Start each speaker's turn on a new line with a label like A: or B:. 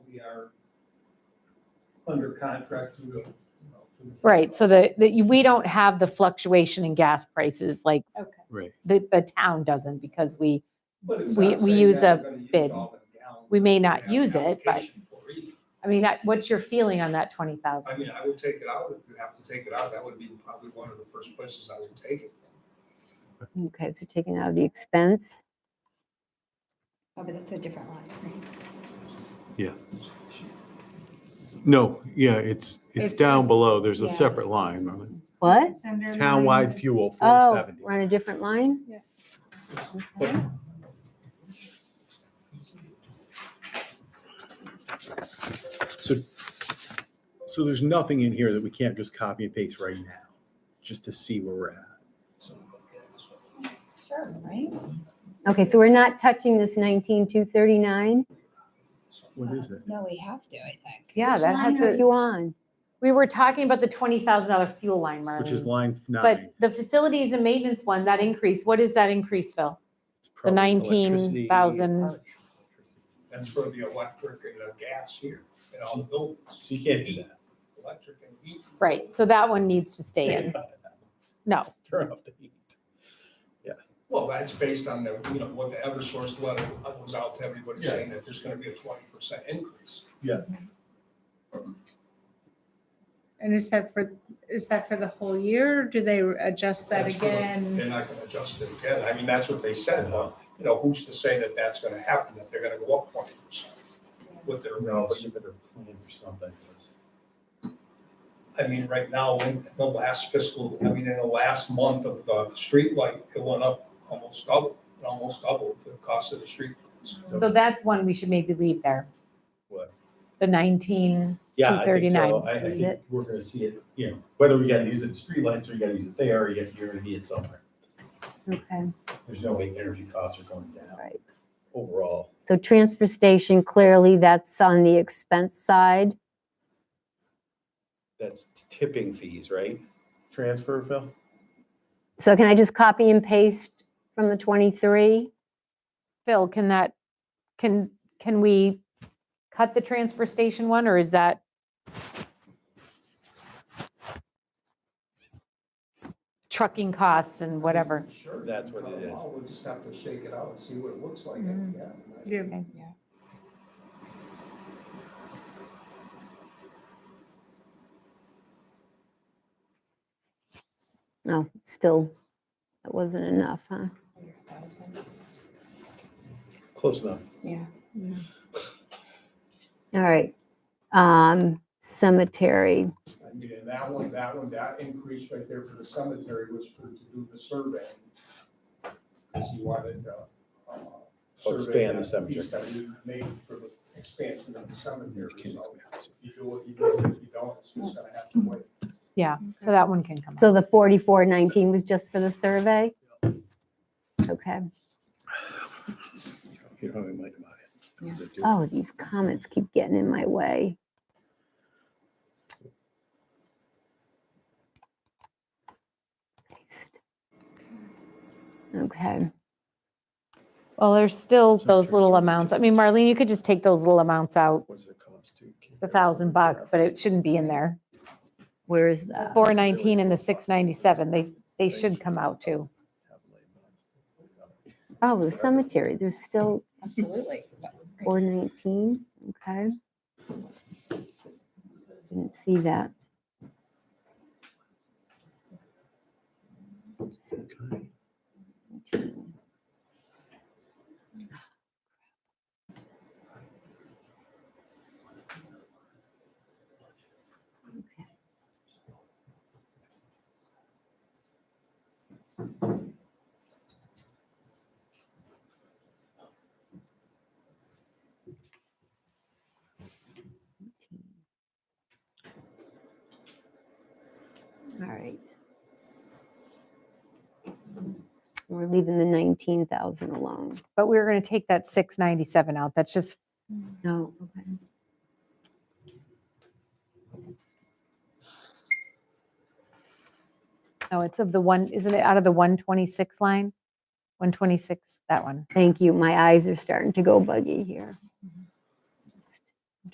A: are under contract through, the, you know. through the-
B: Right, so that, that you- we don't have the fluctuation in gas prices like
C: Okay.
D: Right.
B: the, the town doesn't because we,
A: But it's
B: We-
A: not
B: we
A: saying
B: use
A: that
B: a
A: we're gonna use
B: bid.
A: all the gallons
B: we may
A: that
B: not
A: have an
B: use it, but,
A: application for either.
B: I mean, I- what's your feeling on that 20,000?
A: I mean, I would take it out, if you have to take it out, that would be probably one of the first places I would take it.
E: Okay, so taking out the expense.
C: Oh, but that's a different line, right?
D: No, yeah, it's, it's
C: It's-
D: down below. There's a
C: yeah.
D: separate line, Marlene.
E: What?
C: It's under
D: Townwide
C: line-
D: fuel,
E: Oh,
D: 470.
E: we're on a different line?
D: So, so there's nothing in here that we can't just copy and paste right now, just to see where we're at.
A: So, okay, that's what-
C: Sure, right?
E: Okay, so we're not touching this 19,239?
D: What is it?
C: No, we have to, I think.
B: Yeah, that has
E: What are
B: to,
E: you on?
B: we were talking about the $20,000 fuel line, Marlene.
D: Which is line f- nine.
B: But the facilities and maintenance one, that increase, what is that increase, Phil?
D: It's
B: The
D: probably electricity.
B: 19,000,
A: That's for the electric and the gas here, and all the buildings,
D: So you can't do that.
A: electric and heat.
B: right, so that one needs to stay in. No,
D: Turn off the heat.
A: Well, that's based on the, you know, what the Eversource letter was out to everybody saying that there's gonna be a twenty percent increase.
F: And is that for, is that for the whole year? or Do they adjust that
A: That's gonna-
F: again?
A: They're not gonna adjust it again. I mean, that's what they said, but, you know, who's to say that that's gonna happen, that they're gonna go up twenty percent with their rates?
D: better plan for something.
A: I mean, right now, in the last fiscal, I mean, in the last month of the street light, it went up almost double, it almost doubled the cost of the street.
B: so that's one we should maybe leave there.
D: What?
B: The 19,
D: Yeah, I think so.
B: 239,
D: I, I
B: is
D: think
B: it?
D: we're gonna see it, you know, whether we gotta use it in streetlights or you gotta use it there, or you- you're gonna need it somewhere.
E: Okay,
D: There's no way energy costs are going down
E: right.
D: overall.
E: So transfer station, clearly that's on the expense side.
D: That's tipping fees, right? Transfer, Phil?
E: So can I just copy and paste from the 23?
B: Phil, can that, can, can we cut the transfer station one, or is that? Trucking costs and whatever.
A: Sure.
D: That's what it is.
A: We'll just have to shake it out and see what it looks like. at the end.
F: Yeah.
E: No, Oh, still, that wasn't enough, huh?
D: Close enough.
C: Yeah.
E: All right. Um, Cemetery.
A: I mean, and that one, that one, that increase right there for the cemetery was for, to do the survey. Because he wanted to. uh,
D: Oh, expand
A: survey
D: the
A: that
D: cemetery.
A: piece That we made for the expansion of the cemetery,
D: You can
A: so
D: expand.
A: if you do it, you do it, if you don't, it's just gonna have to wait.
B: Yeah, so that one can come out.
E: So the 4419 was just for the survey? Okay.
D: You don't even like about
C: Yeah.
D: it.
E: Oh, these comments keep getting in my way. Paste. Okay,
B: Well, there's still
D: So
B: those little
D: transfer
B: amounts. I mean, Marlene, you could just take those little amounts out,
D: What does it cost to?
B: the Uh, thousand bucks, but it shouldn't be in there.
E: where is that?
B: Four nineteen and the six ninety-seven, they, they should come out too.
E: Oh, the cemetery, there's still
C: Absolutely. But-
E: four nineteen, okay. Didn't see that. All right. We're leaving the nineteen thousand alone.
B: But we we're gonna take that six ninety-seven out. That's just
E: No, Oh, okay.
B: No, it's of the one, isn't it out of the 126 line? 126, that one.
E: Thank you. My eyes are starting to go buggy here.